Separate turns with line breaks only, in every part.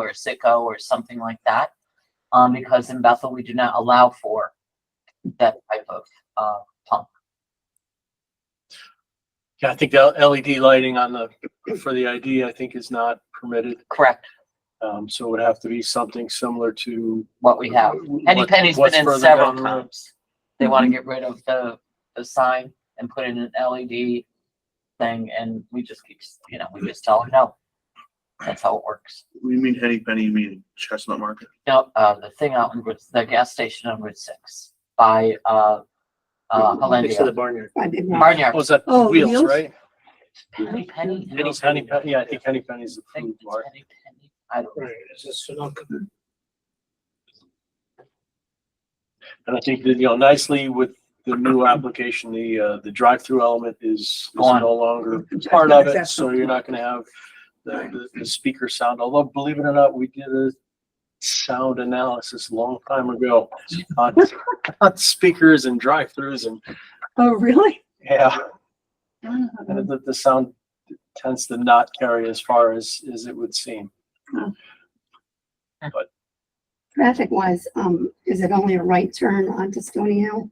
or Sicko or something like that. Um, because in Bethel, we do not allow for that type of, uh, pump.
Yeah, I think the LED lighting on the, for the ID, I think is not permitted.
Correct,
Um, so it would have to be something similar to.
what we have. Henny
what-
Penny's been
what's
in
further
several
down the road.
times. They want to get rid of the, the sign and put in an LED thing and we just keep, you know, we just tell them no. That's how it works.
What do You mean Henny Penny, you mean Chestnut Market?
No, uh, the thing out in Route, the gas station on Route Six by, uh, uh,
Next to the
Hollandia.
barnyard.
I did not.
Barnyard,
Oh, is that
Oh,
Wheels,
Wheels?
right?
Penny Penny. and
Henny's,
those-
Henny Penny, yeah, I think Henny Penny's the
I think
food
it's
mart.
Henny Penny. I don't know.
Right, is this Sunoco? And I think that, you know, nicely with the new application, the, uh, the drive-through element is, is
Gone.
no longer part of it,
That's-
so you're not gonna have the, the, the speaker sound, although believe it or not, we did a sound analysis a long time ago on, on speakers and drive-throughs and,
Oh, really?
yeah,
Mm-hmm.
and the, the sound tends to not carry as far as, as it would seem.
Traffic wise, um, is it only a right turn onto Stony Hill?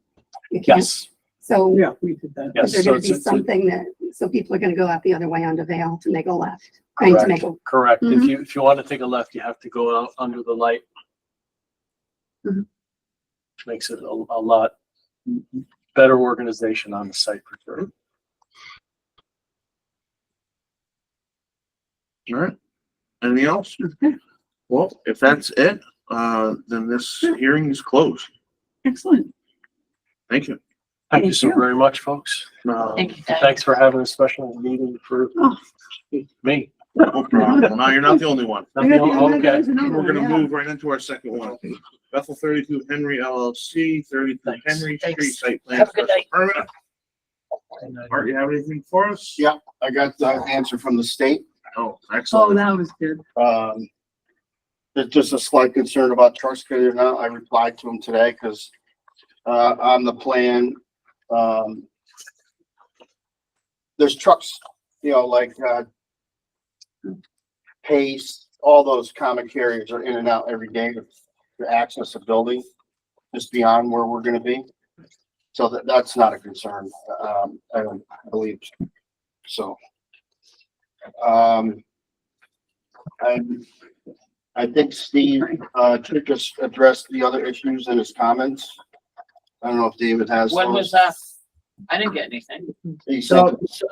You can't,
Yes,
so
Yeah, we did that.
yes.
is there
so
gonna
it's-
be
it's a-
something that, so people are gonna go out the other way onto Vale to make a left? I mean, to
Correct.
make a,
Correct. If
Mhm.
you, if you want to take a left, you have to go out under the light.
Mhm.
Which makes it a, a lot better organization on the site for sure.
All right. Anything else? Well, if that's it, uh, then this hearing is closed.
Excellent.
Thank you.
Thank you
Thank
so
you.
very much, folks. Um,
No,
Thank you, Diane.
Thanks for having a special meeting for
Oh.
me.
no problem. Now you're not the only one.
Not the only- Okay,
We're gonna move right into our second one. Bethel thirty-two Henry LLC, thirty-two
Thanks.
Henry Street
Thanks.
Site Plan
Have a good
Special
night.
Permit. Art, you have anything for us?
Yeah. I got the answer from the state.
Oh,
Oh,
excellent.
that was good.
Um, there's just a slight concern about trucks getting in and out. I replied to them today because, uh, on the plan, um, there's trucks, you know, like, uh, Pace, all those common carriers are in and out every day to, to access a building just beyond where we're gonna be. So that, that's not a concern, um, I don't believe. So. Um, I'm, I think Steve, uh, Trick has addressed the other issues in his comments. I don't know if David has.
When was
those.
that? I didn't get anything.
He sent
So, so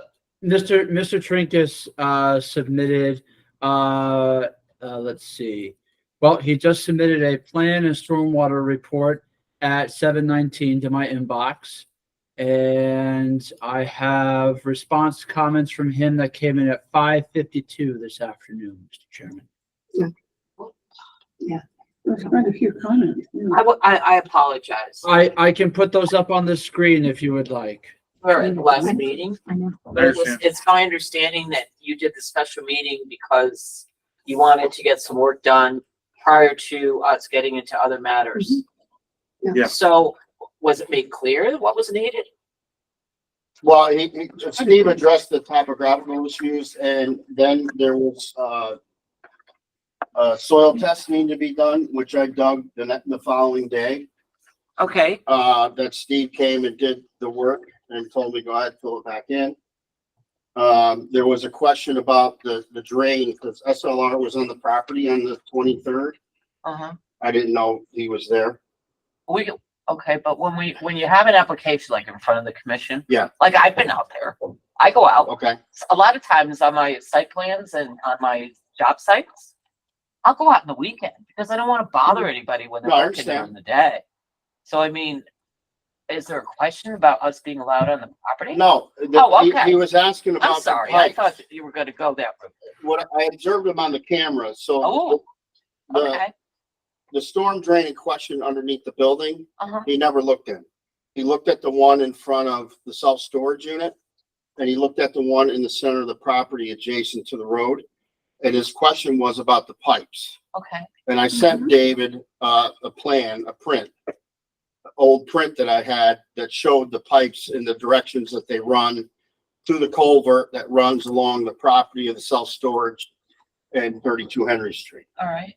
Mr. Mr. Trinkus, uh, submitted, uh, uh, let's see. Well, he just submitted a plan and stormwater report at seven nineteen to my inbox. And I have response comments from him that came in at five fifty-two this afternoon, Mr. Chairman.
There's quite a few comments. yeah.
I, wa- I, I apologize.
Oh,
I, I can put those up on the screen if you would like.
We were at the last meeting.
I know.
It was, it's my understanding that you did the special meeting because you wanted to get some work done prior to us getting into other matters.
Mm-hmm. Yeah.
Yeah.
So was it made clear what was needed?
Well, he, he, Steve addressed the topographical issues and then there was, uh, uh, soil tests need to be done, which I dug the, ne- the following day,
Okay,
uh, that Steve came and did the work and told me, go ahead, fill it back in. Um, there was a question about the, the drain, because SLR was on the property on the twenty-third.
uh-huh.
I didn't know he was there.
We, okay, but when we, when you have an application like in front of the commission.
Yeah.
Like I've been out there. I go out
Okay,
a lot of times on my site plans and on my job sites. I'll go out in the weekend because I don't want to bother anybody when they're
Mm-hmm. No, I
working during
understand.
the day. So I mean, is there a question about us being allowed on the property?
no, the-
Oh,
he-
okay.
he was asking about.
I'm
the
sorry, I
pipes.
thought that you were gonna go that route.
What, I observed him on the camera, so.
Oh,
the-
Okay,
the storm drain in question underneath the building,
uh-huh,
he never looked in. He looked at the one in front of the self-storage unit, and he looked at the one in the center of the property adjacent to the road. And his question was about the pipes.
okay,
And I sent David, uh, a plan, a print, an old print that I had that showed the pipes in the directions that they run to the culvert that runs along the property of the self-storage
and thirty-two Henry Street.
all right.